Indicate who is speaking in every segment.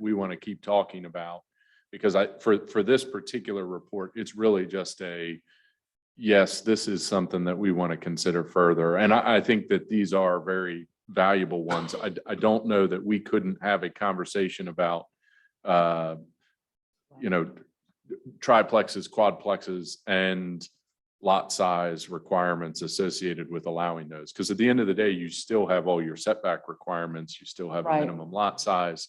Speaker 1: want to keep talking about. Because I, for, for this particular report, it's really just a, yes, this is something that we want to consider further. And I, I think that these are very valuable ones. I, I don't know that we couldn't have a conversation about, uh, you know, triplexes, quadplexes, and lot size requirements associated with allowing those. Because at the end of the day, you still have all your setback requirements, you still have a
Speaker 2: Right.
Speaker 1: minimum lot size.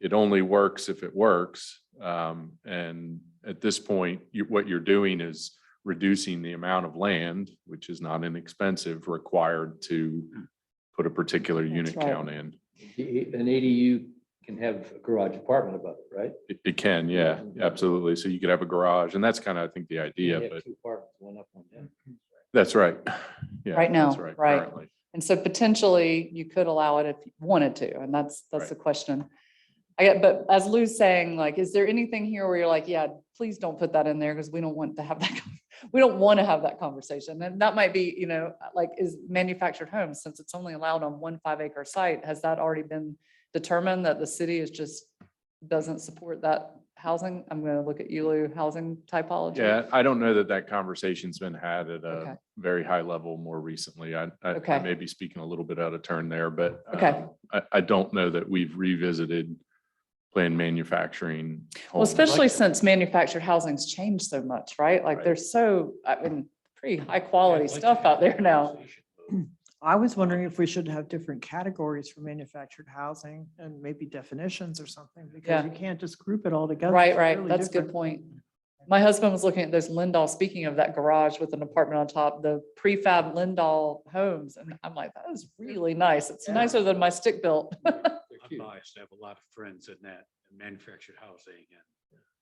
Speaker 1: It only works if it works. Um, and at this point, you, what you're doing is reducing the amount of land, which is not inexpensive, required to put a particular
Speaker 2: That's
Speaker 1: unit
Speaker 2: right.
Speaker 1: count in.
Speaker 3: An ADU can have a garage apartment above it, right?
Speaker 1: It, it can, yeah, absolutely. So you could have a garage, and that's kind of, I think, the idea,
Speaker 3: You have
Speaker 1: but
Speaker 3: Two apartments, one up, one down.
Speaker 1: that's right. Yeah,
Speaker 2: Right now,
Speaker 1: that's
Speaker 2: right.
Speaker 1: currently.
Speaker 2: And so potentially you could allow it if you wanted to, and that's, that's
Speaker 1: Right.
Speaker 2: the question. I get, but as Lou's saying, like, is there anything here where you're like, yeah, please don't put that in there because we don't want to have that. con- We don't want to have that conversation. And that might be, you know, like is manufactured homes, since it's only allowed on one five acre site, has that already been determined that the city is just doesn't support that housing? I'm going to look at you, Lou, housing typology.
Speaker 1: Yeah, uh, I don't know that that conversation's been had at
Speaker 2: Okay.
Speaker 1: a very high level more recently. I, I- I
Speaker 2: Okay.
Speaker 1: may be speaking a little bit out of turn there, but
Speaker 2: Okay.
Speaker 1: um, I, I don't know that we've revisited planned manufacturing.
Speaker 2: Well,
Speaker 1: homes.
Speaker 2: especially since manufactured housing's changed so much, right? Like
Speaker 1: Right.
Speaker 2: they're so, I mean, pretty high quality stuff out there now.
Speaker 4: I was wondering if we should have different categories for manufactured housing and maybe definitions or something, because
Speaker 2: Yeah.
Speaker 4: you can't just group it all together.
Speaker 2: Right,
Speaker 4: It's
Speaker 2: right.
Speaker 4: really
Speaker 2: That's a good
Speaker 4: different.
Speaker 2: point. My husband was looking at those Lindall, speaking of that garage with an apartment on top, the prefab Lindall homes. And I'm like, that is really nice. It's
Speaker 3: Yeah.
Speaker 2: nicer than my stick built.
Speaker 3: They're
Speaker 5: I'm
Speaker 3: cute.
Speaker 5: biased. I have a lot of friends in that manufactured housing and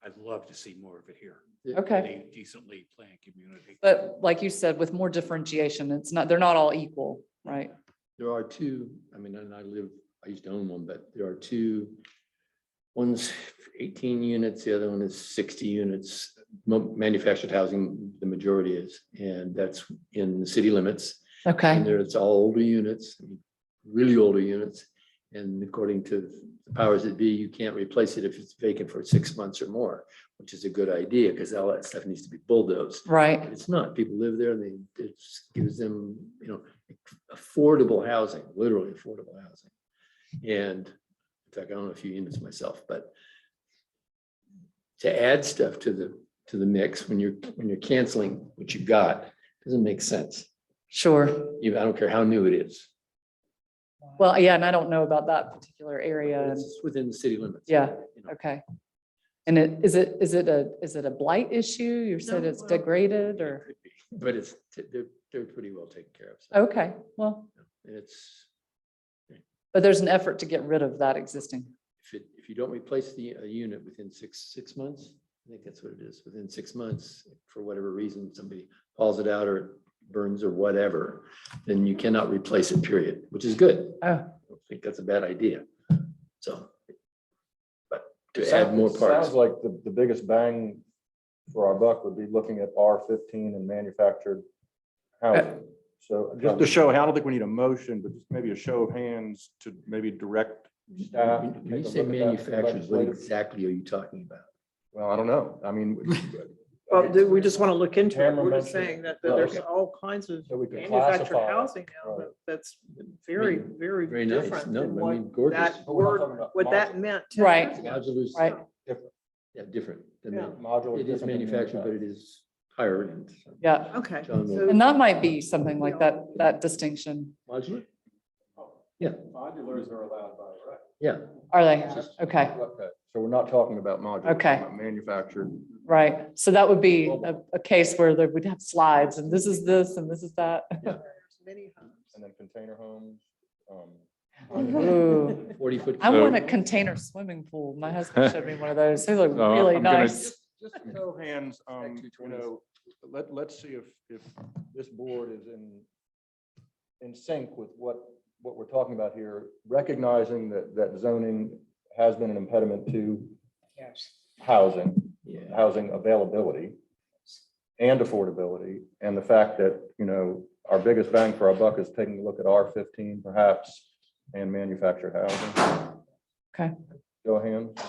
Speaker 5: I'd love to see more of it here. in
Speaker 2: Okay.
Speaker 5: a Decently planned community.
Speaker 2: But like you said, with more differentiation, it's not, they're not all equal, right?
Speaker 3: There are two, I mean, and I live, I used to own one, but there are two. One's eighteen units, the other one is sixty units, Mo- manufactured housing, the majority is, and that's in the city limits. And
Speaker 2: Okay.
Speaker 3: there, it's all older units, really older units. And according to the powers that be, you can't replace it if it's vacant for six months or more, which is a good idea because all that stuff needs to be bulldozed.
Speaker 2: Right.
Speaker 3: But it's not. People live there and they, it gives them, you know, affordable housing, literally affordable housing. And in fact, I own a few units myself, but to add stuff to the, to the mix when you're, when you're canceling what you've got, doesn't make sense.
Speaker 2: Sure.
Speaker 3: Even, I don't care how new it is.
Speaker 2: Well, yeah, and I don't know about that particular area. and-
Speaker 3: It's just within the city limits.
Speaker 2: Yeah.
Speaker 3: You know,
Speaker 2: Okay. And it, is it, is it a, is it a blight issue? You said
Speaker 3: No,
Speaker 2: it's
Speaker 3: well,
Speaker 2: degraded
Speaker 3: it
Speaker 2: or,
Speaker 3: could be, But it's, they're, they're pretty well taken care of. so,
Speaker 2: okay, well,
Speaker 3: And it's,
Speaker 2: but there's an effort to get rid of that existing.
Speaker 3: if it, if you don't replace the, a unit within six, six months, I think that's what it is, within six months, for whatever reason, somebody hauls it out or it burns or whatever, then you cannot replace it, period, which is good. I
Speaker 2: Oh,
Speaker 3: don't think that's a bad idea. So. But to add more parts.
Speaker 6: Sounds like the, the biggest bang for our buck would be looking at R fifteen and manufactured housing. So just to show, I don't think we need a motion, but just maybe a show of hands to maybe direct staff. to
Speaker 3: Uh, When you
Speaker 6: take a
Speaker 3: say
Speaker 6: look at that
Speaker 3: manufacturers, what
Speaker 6: legislative-
Speaker 3: exactly are you talking about?
Speaker 6: Well, I don't know. I mean.
Speaker 4: Well, th- we just want to look into it.
Speaker 6: Tamara
Speaker 4: We're just
Speaker 6: mentioned-
Speaker 4: saying that
Speaker 3: Oh,
Speaker 4: that there's
Speaker 3: okay.
Speaker 4: all kinds of
Speaker 6: So we can
Speaker 4: manufactured
Speaker 6: classify it.
Speaker 4: housing now
Speaker 6: Right.
Speaker 4: that- that's very,
Speaker 3: Very-
Speaker 4: very
Speaker 3: Very nice.
Speaker 4: different
Speaker 3: No,
Speaker 4: than
Speaker 3: I
Speaker 4: what
Speaker 3: mean, gorgeous.
Speaker 4: that
Speaker 6: But we're not
Speaker 4: word,
Speaker 6: talking about
Speaker 4: what that
Speaker 6: modular.
Speaker 4: meant. 10
Speaker 2: Right.
Speaker 4: years ago.
Speaker 3: Modular is-
Speaker 2: Right.
Speaker 3: Yeah, different. than
Speaker 4: Yeah.
Speaker 3: man-
Speaker 6: Modular.
Speaker 3: It is manufactured, but it is higher end.
Speaker 2: yeah.
Speaker 4: Okay.
Speaker 3: John will-
Speaker 4: so-
Speaker 2: And that might be something like that, that distinction.
Speaker 3: Modular?
Speaker 6: Modulars are allowed by
Speaker 3: Yeah.
Speaker 2: Are they? Okay,
Speaker 6: So we're not talking about modular. we're
Speaker 2: Okay.
Speaker 6: talking about Manufactured.
Speaker 2: right. So that would be a, a case where there would have slides and this is this and this is that.
Speaker 4: Many homes.
Speaker 6: And then container homes. um,
Speaker 2: Ooh.
Speaker 3: Forty foot.
Speaker 2: I
Speaker 1: So-
Speaker 2: want a container swimming pool. My husband showed me one of those. They look
Speaker 1: So,
Speaker 2: really
Speaker 1: Oh, I'm gonna-
Speaker 2: nice.
Speaker 6: Just to show hands, um,
Speaker 3: two
Speaker 6: you
Speaker 3: twenties.
Speaker 6: know, let, let's see if, if this board is in, in sync with what, what we're talking about here, recognizing that, that zoning has been an impediment to housing,
Speaker 3: Yeah.
Speaker 6: housing availability and affordability, and the fact that, you know, our biggest bang for our buck is taking a look at R fifteen perhaps and manufactured housing.
Speaker 2: Okay.
Speaker 6: Show of hands.